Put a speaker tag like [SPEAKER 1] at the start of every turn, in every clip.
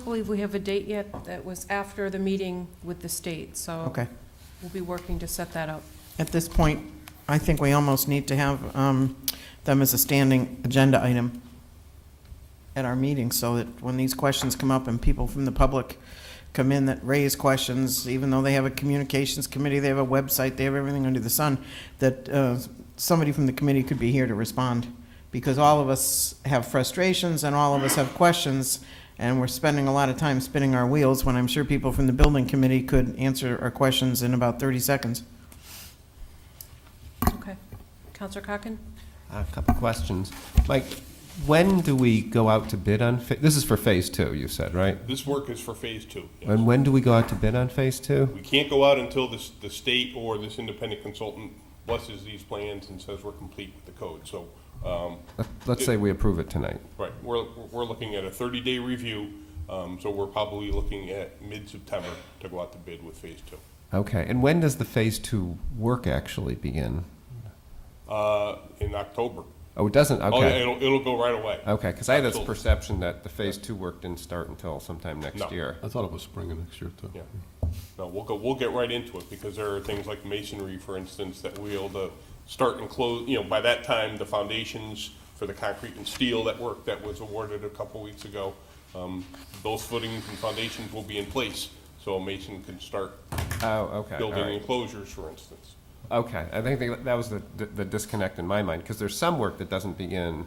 [SPEAKER 1] I believe we have a date yet that was after the meeting with the state, so
[SPEAKER 2] Okay.
[SPEAKER 1] we'll be working to set that up.
[SPEAKER 2] At this point, I think we almost need to have um, them as a standing agenda item at our meeting, so that when these questions come up and people from the public come in that raise questions, even though they have a communications committee, they have a website, they have everything under the sun, that uh, somebody from the committee could be here to respond. Because all of us have frustrations and all of us have questions, and we're spending a lot of time spinning our wheels when I'm sure people from the building committee could answer our questions in about 30 seconds.
[SPEAKER 1] Okay. Counselor Cocken?
[SPEAKER 3] A couple questions. Mike, when do we go out to bid on, fa- this is for phase two, you said, right?
[SPEAKER 4] This work is for phase two. yes.
[SPEAKER 3] And when do we go out to bid on phase two?
[SPEAKER 4] We can't go out until this, the state or this independent consultant blesses these plans and says we're complete with the code. So, um,
[SPEAKER 3] Let- Let's say we approve it tonight.
[SPEAKER 4] right, we're, we're looking at a thirty-day review, um, so we're probably looking at mid-September to go out to bid with phase two.
[SPEAKER 3] Okay, and when does the phase two work actually begin?
[SPEAKER 4] Uh, in October.
[SPEAKER 3] Oh, it doesn't,
[SPEAKER 4] Oh, yeah,
[SPEAKER 3] okay.
[SPEAKER 4] it'll, it'll go right away.
[SPEAKER 3] Okay, because I had this
[SPEAKER 4] Absolutely.
[SPEAKER 3] perception that the phase two work didn't start until sometime next
[SPEAKER 4] No.
[SPEAKER 3] year.
[SPEAKER 5] I thought it was spring of next year, too.
[SPEAKER 4] Yeah. No, we'll go, we'll get right into it, because there are things like masonry, for instance, that we'll to start and close, you know, by that time, the foundations for the concrete and steel that work that was awarded a couple weeks ago, um, those footings and foundations will be in place, so a mason can start
[SPEAKER 3] Oh, okay, all
[SPEAKER 4] building
[SPEAKER 3] right.
[SPEAKER 4] enclosures, for instance.
[SPEAKER 3] Okay, I think they- that was the the disconnect in my mind, because there's some work that doesn't begin,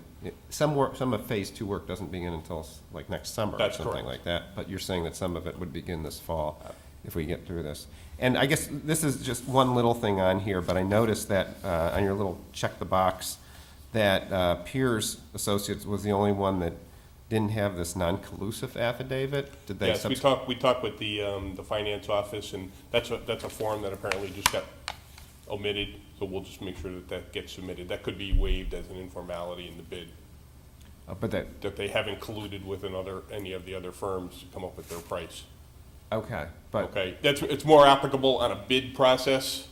[SPEAKER 3] some work, some of phase two work doesn't begin until s- like next summer or
[SPEAKER 4] That's
[SPEAKER 3] something
[SPEAKER 4] correct. Uh,
[SPEAKER 3] like that. But you're saying that some of it would begin this fall if we get through this. And I guess this is just one little thing on here, but I noticed that uh, on your little check the box, that uh, Piers Associates was the only one that didn't have this non-collusive affidavit. Did they?
[SPEAKER 4] Yes, we
[SPEAKER 3] subs-
[SPEAKER 4] talked, we talked with the, um, the finance office, and that's a, that's a form that apparently just got omitted, so we'll just make sure that that gets submitted. That could be waived as an informality in the bid.
[SPEAKER 3] uh, But that,
[SPEAKER 4] that they haven't colluded with another, any of the other firms to come up with their price.
[SPEAKER 3] okay, but.
[SPEAKER 4] Okay, that's, it's more applicable on a bid process,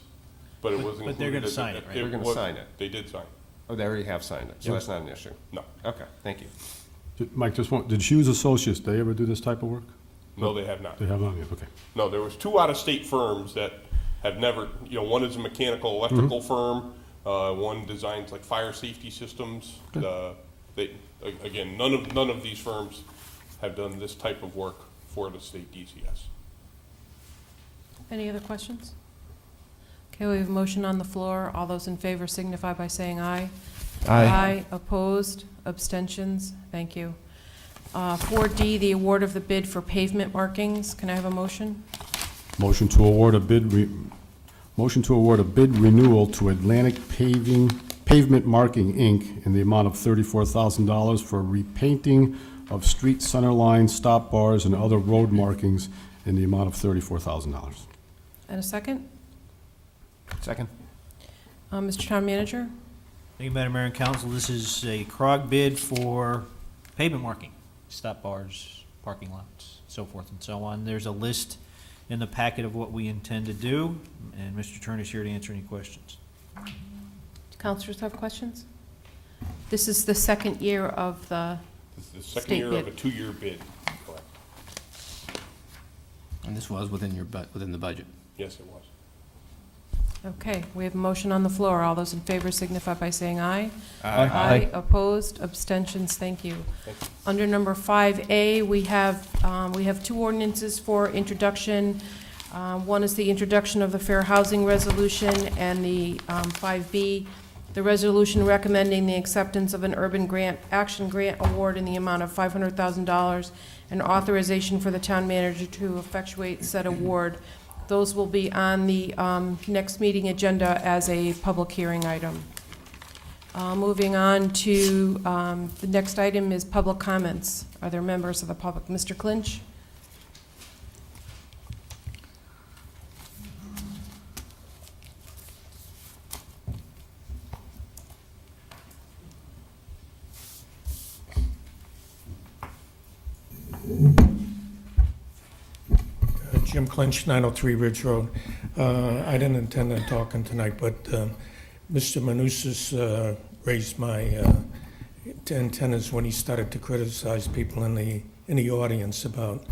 [SPEAKER 4] but it wasn't.
[SPEAKER 6] But they're
[SPEAKER 4] included
[SPEAKER 6] gonna
[SPEAKER 4] as a-
[SPEAKER 6] sign it, right?
[SPEAKER 3] They're gonna
[SPEAKER 4] was-
[SPEAKER 3] sign it.
[SPEAKER 4] They did sign,
[SPEAKER 3] Oh, they already have signed it, so that's not an issue.
[SPEAKER 4] no,
[SPEAKER 3] Okay, thank you.
[SPEAKER 5] Did- Mike, just one, did Hughes Associates, they ever do this type of work?
[SPEAKER 4] no, they have not.
[SPEAKER 5] They have not yet, okay.
[SPEAKER 4] No, there was two out-of-state firms that have never, you know, one is a mechanical electrical
[SPEAKER 6] Mm-hmm.
[SPEAKER 4] firm, uh, one designs like fire safety systems. Uh, They, a- again, none of, none of these firms have done this type of work for the state DCS.
[SPEAKER 1] Any other questions? Okay, we have a motion on the floor. All those in favor signify by saying aye.
[SPEAKER 3] Aye.
[SPEAKER 1] opposed, abstentions, thank you. Uh, 4D, the award of the bid for pavement markings. Can I have a motion?
[SPEAKER 5] Motion to award a bid, re- motion to award a bid renewal to Atlantic Paving, Pavement Marking, Inc. in the amount of thirty-four thousand dollars for repainting of street center lines, stop bars, and other road markings in the amount of thirty-four thousand dollars.
[SPEAKER 1] And a second?
[SPEAKER 3] Second?
[SPEAKER 1] Uh, Mr. Town Manager?
[SPEAKER 6] Thank you, Madam Mayor and Council. This is a CROG bid for pavement marking, stop bars, parking lots, so forth and so on. There's a list in the packet of what we intend to do, and Mr. Turner's here to answer any questions.
[SPEAKER 1] Do Councilors have questions? This is the second year of the,
[SPEAKER 4] This is the second
[SPEAKER 1] State
[SPEAKER 4] year of a
[SPEAKER 1] bid.
[SPEAKER 4] two-year bid, correct?
[SPEAKER 7] And this was within your, bu- within the budget.
[SPEAKER 4] Yes, it was.
[SPEAKER 1] okay, we have a motion on the floor. All those in favor signify by saying aye. opposed, abstentions, thank you. Under number 5A, we have, um, we have two ordinances for introduction. Um, One is the introduction of the Fair Housing Resolution, and the um, 5B, the resolution recommending the acceptance of an urban grant, action grant award in the amount of $500,000, and authorization for the town manager to effectuate said award. Those will be on the um, next meeting agenda as a public hearing item. Uh, Moving on to, um, the next item is public comments. Are there members of the public? Mr. Clinch?
[SPEAKER 8] Uh, Jim Clinch, 903 Ridge Road. Uh, I didn't intend on talking tonight, but um, Mr. Manousis uh, raised my uh, antennas when he started to criticize people in the in the audience about